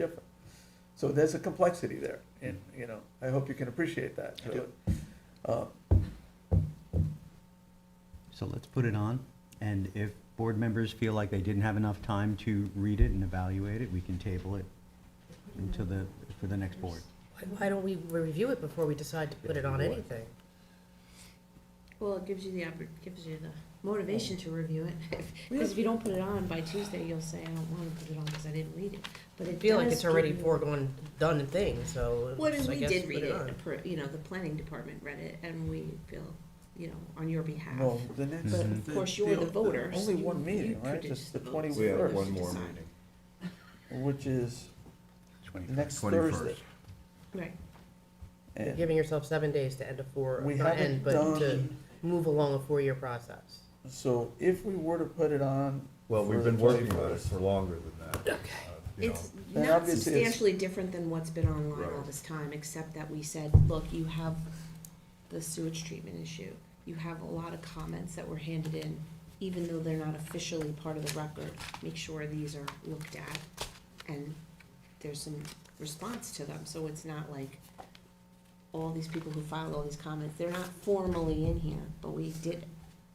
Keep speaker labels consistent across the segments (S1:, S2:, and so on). S1: different. So there's a complexity there, and, you know, I hope you can appreciate that.
S2: I do.
S1: Uh,
S3: So let's put it on, and if board members feel like they didn't have enough time to read it and evaluate it, we can table it until the, for the next board.
S4: Why don't we review it before we decide to put it on anything?
S5: Well, it gives you the, oppor- gives you the motivation to review it, because if you don't put it on by Tuesday, you'll say, I don't wanna put it on because I didn't read it, but
S4: I
S5: it
S4: feel like
S5: does
S4: it's already
S5: give you-
S4: foregone, done thing, so.
S5: Well, and
S4: I
S5: we
S4: guess
S5: did
S4: put
S5: read
S4: on.
S5: it, appro- you know, the planning department read it, and we feel, you know, on your behalf.
S1: Well, the next.
S3: But of
S1: the-
S5: course, you're the voter, so
S1: Only
S5: you-
S1: one
S5: you
S1: meeting, right,
S5: produce
S1: just the
S5: the votes.
S2: We have
S1: twenty-first,
S5: First.
S2: one more
S5: Decide.
S2: meeting.
S1: which is the next Thursday.
S5: Right,
S4: You're
S1: And
S4: Giving yourself seven days to end a four,
S1: we
S4: not
S1: haven't
S4: end, but to
S1: done,
S4: move along a four-year process.
S1: so if we were to put it on.
S2: Well,
S1: for
S2: we've
S1: the
S2: been working on it
S1: 21st,
S2: for longer than that. uh, Okay.
S5: it's
S1: And
S5: not
S1: obviously it's-
S5: substantially different than what's been online all
S2: Right.
S5: this time, except that we said, look, you have the sewage treatment issue. You have a lot of comments that were handed in, even though they're not officially part of the record, make sure these are looked at. And there's some response to them, so it's not like all these people who filed all these comments, they're not formally in here, but we did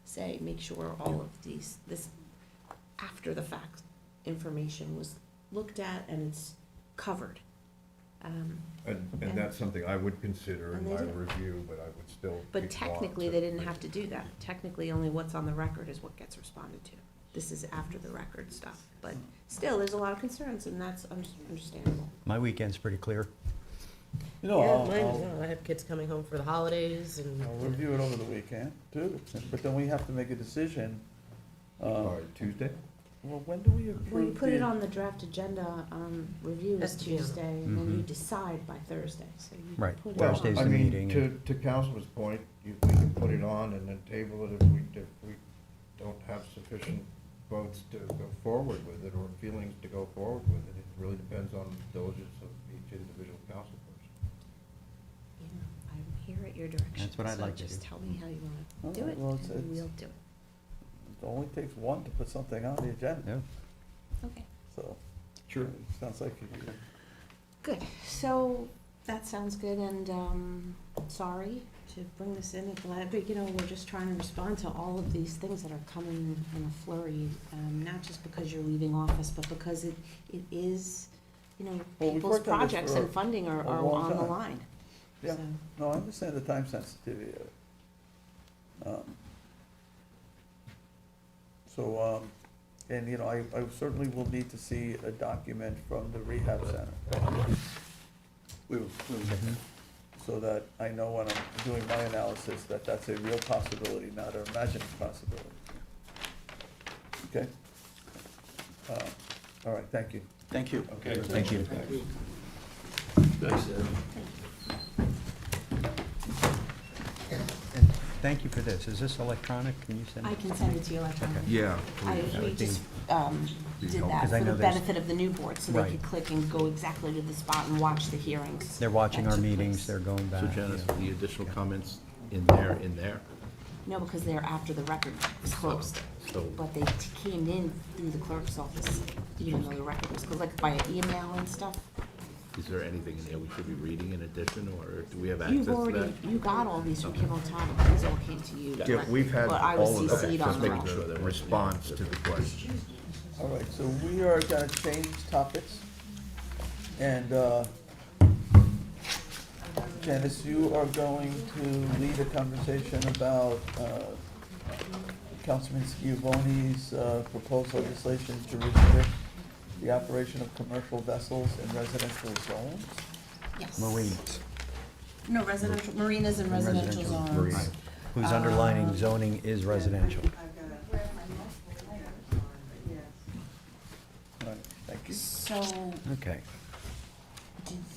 S5: say, make sure all of these, this after the fact information was looked at and it's covered. Um,
S2: And, and that's something I would consider in
S5: And they
S2: my
S5: do.
S2: review, but I would still.
S5: But
S2: want
S5: technically,
S2: to-
S5: they didn't have to do that. Technically, only what's on the record is what gets responded to. This is after the record stuff, but still, there's a lot of concerns and that's un- understandable.
S3: My weekend's pretty clear.
S1: You know, I'll,
S4: Yeah, mine is
S1: I'll-
S4: not. I have kids coming home for the holidays
S1: Oh, I'll
S4: and
S1: review it over the weekend, too, but then we have to make a decision.
S2: All
S1: Uh,
S2: right, Tuesday?
S1: well, when do we approve?
S5: Well, you put it
S1: the-
S5: on the draft agenda, um, review is
S4: That's June.
S5: Tuesday, and then you
S3: Mhm.
S5: decide by Thursday, so you.
S3: Right.
S5: put it
S2: Well,
S3: Thursday's
S2: I
S3: the
S2: mean,
S3: meeting.
S2: To, to Councilman's point, you, we can put it on and then table it if we, if we don't have sufficient votes to go forward with it or feelings to go forward with it. It really depends on the diligence of each individual council person.
S5: You know, I'm here at your direction.
S3: That's what I'd
S5: so
S3: like to
S5: Just
S3: do.
S5: tell me how you
S1: All
S5: wanna do
S1: right,
S5: it,
S1: uh, well, it's-
S5: and
S1: it's-
S5: we'll do it.
S1: It only takes one to put something on the agenda,
S3: Yeah.
S5: Okay.
S1: so.
S2: Sure.
S1: Sounds like you-
S5: Good, so that sounds good and, um, sorry to bring this in at the last, but you know, we're just trying to respond to all of these things that are coming in a flurry. Um, not just because you're leaving office, but because it, it is, you know,
S1: Well, we've
S5: people's
S1: worked on this
S5: projects
S1: for
S5: and funding are,
S1: a
S5: are
S1: long
S5: on the
S1: time.
S5: line.
S1: Yeah.
S5: So,
S1: No, I understand the time sensitivity of it. Um, So, um, and, you know, I, I certainly will need to see a document from the rehab center,
S6: We will, we will get
S3: Mm-hmm.
S6: that.
S1: so that I know when I'm doing my analysis, that that's a real possibility, not an imagined possibility. Okay? Uh, All right, thank you.
S6: Thank you.
S2: Okay.
S6: Thank you.
S3: And thank you for this. Is this electronic? Can you send it?
S5: I can send it to you electronically.
S2: Yeah.
S5: I, we just, um,
S2: be
S5: did
S2: helpful.
S5: that
S3: 'Cause I
S5: for the
S3: know there's-
S5: benefit of the new board, so they
S3: Right.
S5: could click and go exactly to the spot and watch the hearings.
S3: They're watching
S5: that
S3: our
S5: took
S3: meetings,
S5: place.
S3: they're going back.
S6: So Janice,
S3: yeah.
S6: the additional comments in there, in there?
S5: No, because they're after the record was closed.
S6: So-
S5: But they t- came in through the clerk's office, even though the record was closed, like by email and stuff.
S6: Is there anything in there we should be reading in addition, or do we have access
S5: You've
S6: to
S5: already,
S6: that?
S5: you got all these from Kim O'Tonic, these all came to you.
S2: Yeah,
S5: but-
S2: we've had
S5: But I
S2: all
S5: was
S2: of that,
S5: CC'd
S2: just
S5: on
S2: making
S5: them.
S2: sure the response to the question.
S1: All right, so we are gonna change topics. And uh, Janice, you are going to lead a conversation about uh, Councilman Schiavone's uh, proposed legislation to restrict the operation of commercial vessels in residential zones.
S5: Yes.
S3: Marines.
S5: No, residential, marinas and residential
S3: residential
S5: zones. Um,
S3: Right. Whose underlining zoning is residential.
S1: All right, thank you.
S5: So
S3: Okay.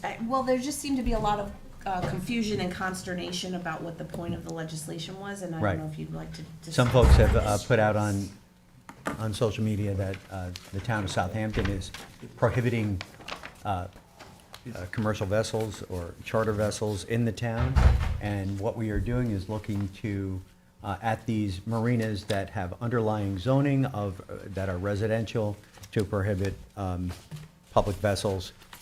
S5: I- Well, there just seemed to be a lot of uh, confusion and consternation about what the point of the legislation was, and I
S3: Right.
S5: don't know if you'd like to.
S3: Some
S5: discuss
S3: folks have
S5: that.
S3: uh, put out on, on social media that uh, the town of Southampton is prohibiting uh, uh, commercial vessels or charter vessels in the town. And what we are doing is looking to, uh, at these marinas that have underlying zoning of, uh, that are residential, to prohibit um, public vessels